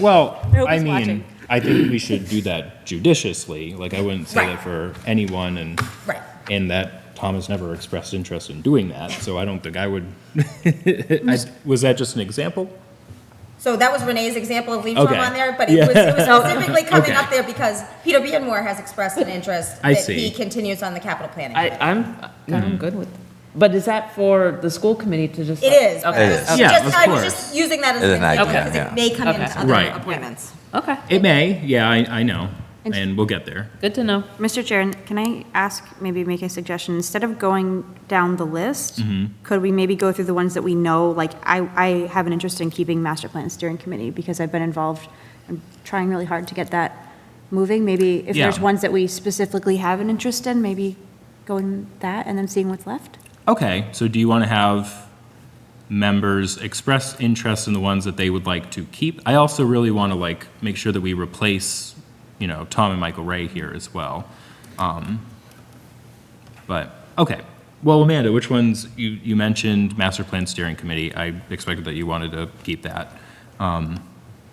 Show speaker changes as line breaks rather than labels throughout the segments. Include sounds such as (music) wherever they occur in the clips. Well,
Nobody's
I mean,
watching.
I think we should do that judiciously. Like, I wouldn't say
Right.
that for anyone, and
Right.
and that Tom has never expressed interest in doing that. So I don't think
(laughs)
I would. I, was that just an example?
So that was Renee's example of leave form
Okay.
on there, but it
Yeah. (laughs)
was, it was specifically coming
Okay.
up there because Peter Beardmore has expressed an interest
I
that
see.
he continues on the capital planning.
I, I'm,
Hmm.
I'm good with, but is that for the school committee to just?
It is, but
Okay,
it was
okay.
just,
Yeah, of
I was
course.
just using that as
As
an
an
example
idea,
because
yeah.
it may come
Okay.
into other
Right.
appointments.
Okay,
It may. Yeah, I, I know,
And-
and we'll get there.
good to know.
Mr. Chair, can I ask, maybe make a suggestion? Instead of going down the list, could we maybe go through the ones that we know? Like, I, I have an interest in keeping master plan steering committee because I've been involved. I'm trying really hard to get that moving. Maybe if there's
Yeah.
ones that we specifically have an interest in, maybe going that and then seeing what's left?
Okay, so do you want to have members express interest in the ones that they would like to keep? I also really want to like make sure that we replace, you know, Tom and Michael Ray here as well. Um, But, okay. Well, Amanda, which ones, you, you mentioned Master Plan Steering Committee. I expected that you wanted to keep that. Um,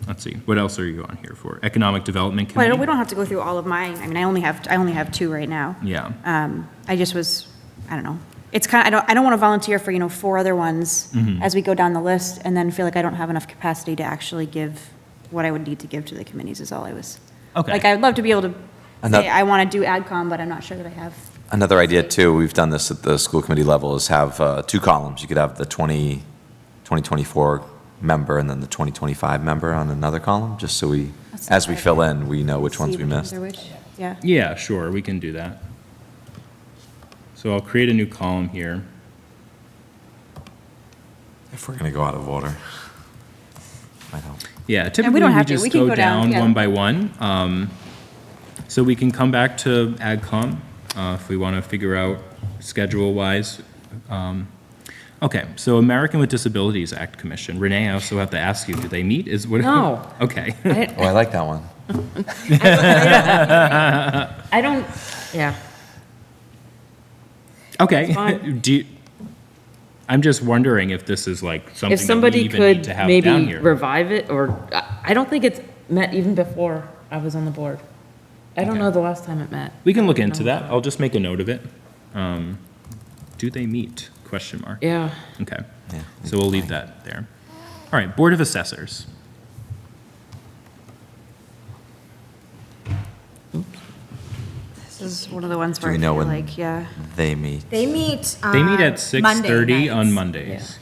Let's see, what else are you on here for? Economic Development
Well, I
Committee?
don't- we don't have to go through all of mine. I mean, I only have, I only have two right now.
Yeah.
Um, I just was, I don't know. It's kind, I don't, I don't want to volunteer for, you know, four other ones
Mm-hmm.
as we go down the list and then feel like I don't have enough capacity to actually give what I would need to give to the committees is all I was.
Okay.
Like, I'd love to be able to
Ano-
say, I want to do AdCom, but I'm not sure that I have.
Another idea too, we've done this at the school committee level, is have uh, two columns. You could have the 20, 2024 member and then the 2025 member on another column, just so we,
That's
as we
a good
fill in, we know which ones
see
we
which
missed.
are which. Yeah.
Yeah, sure, we can do that. So I'll create a new column here.
If we're going to go out of order. Might help.
Yeah,
we
typically
don't
we
have to. We
just
can
go
go down,
down
yeah.
one by one. Um, So we can come back to AgCom uh, if we want to figure out schedule-wise. Um, Okay, so American with Disabilities Act Commission. Renee, I also have to ask you, do they meet? Is what?
No.
(laughs) Okay.
Oh, I like that one.
I don't, yeah.
Okay. (laughs)
fine.
Do, you- I'm just wondering if this is like something
If
that we
somebody
even need
could
to have down
maybe
here.
revive it, or, I- I don't think it's met even before I was on the board. I don't
Okay.
know the last time it met.
We can look into that. I'll just make a note of it. Um, Do they meet? Question mark.
Yeah.
Okay.
Yeah.
So we'll leave that there. All right, Board of Assessors.
This is one of the ones
Do
where I
we know
feel
when-
like, yeah.
They meet.
They meet
They meet
on
at
Uh, Monday
6:30 on
nights.
Mondays.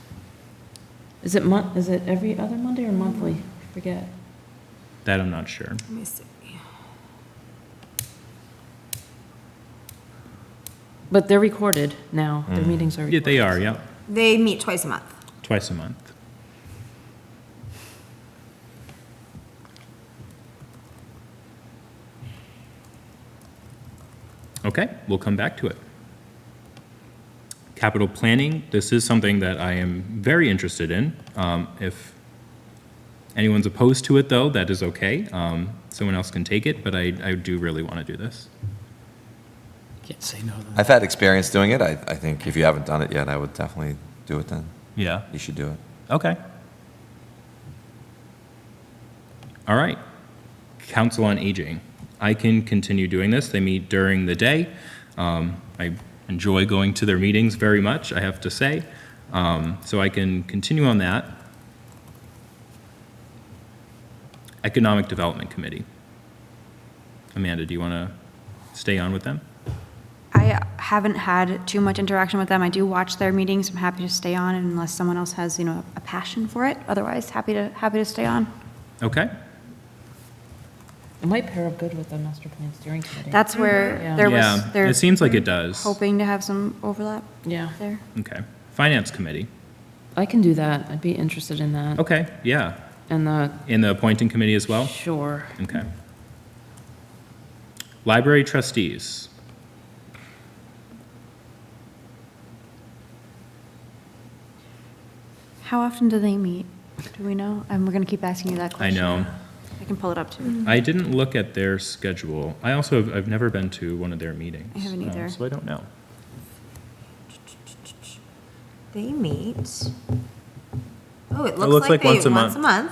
Is it mon, is it every other Monday or monthly? I Forget.
That I'm not sure.
Let me see.
But they're recorded now. Their
Mm.
meetings are
Yeah,
recorded.
they are, yep,
They meet twice a month.
twice a month. Okay, we'll come back to it. Capital planning, this is something that I am very interested in. Um, If anyone's opposed to it, though, that is okay. Um, Someone else can take it, but I, I do really want to do this.
Can't say no to that.
I've had experience doing it. I, I think if you haven't done it yet, I would definitely do it then.
Yeah.
You should do it.
Okay. All right. Council on Aging. I can continue doing this. They meet during the day. Um, I enjoy going to their meetings very much, I have to say. Um, So I can continue on that. Economic Development Committee. Amanda, do you want to stay on with them?
I haven't had too much interaction with them. I do watch their meetings. I'm happy to stay on unless someone else has, you know, a passion for it. Otherwise, happy to, happy to stay on.
Okay.
It might pair up good with the master plan steering committee.
That's where there was,
Yeah,
there.
it seems like it does.
Hoping to have some overlap
Yeah,
there.
Okay. Finance Committee.
I can do that. I'd be interested in that.
Okay, yeah.
And the,
In the appointing committee as well?
sure.
Okay. Library trustees.
How often do they meet? Do we know? And we're going to keep asking you that
I
question.
know.
I can pull it up too.
I didn't look at their schedule. I also, have- I've never been to one of their meetings.
I haven't
um,
either.
So I don't know.
They meet. Oh, it
looks
looks like
like
they,
once
once
a
a
month.
month.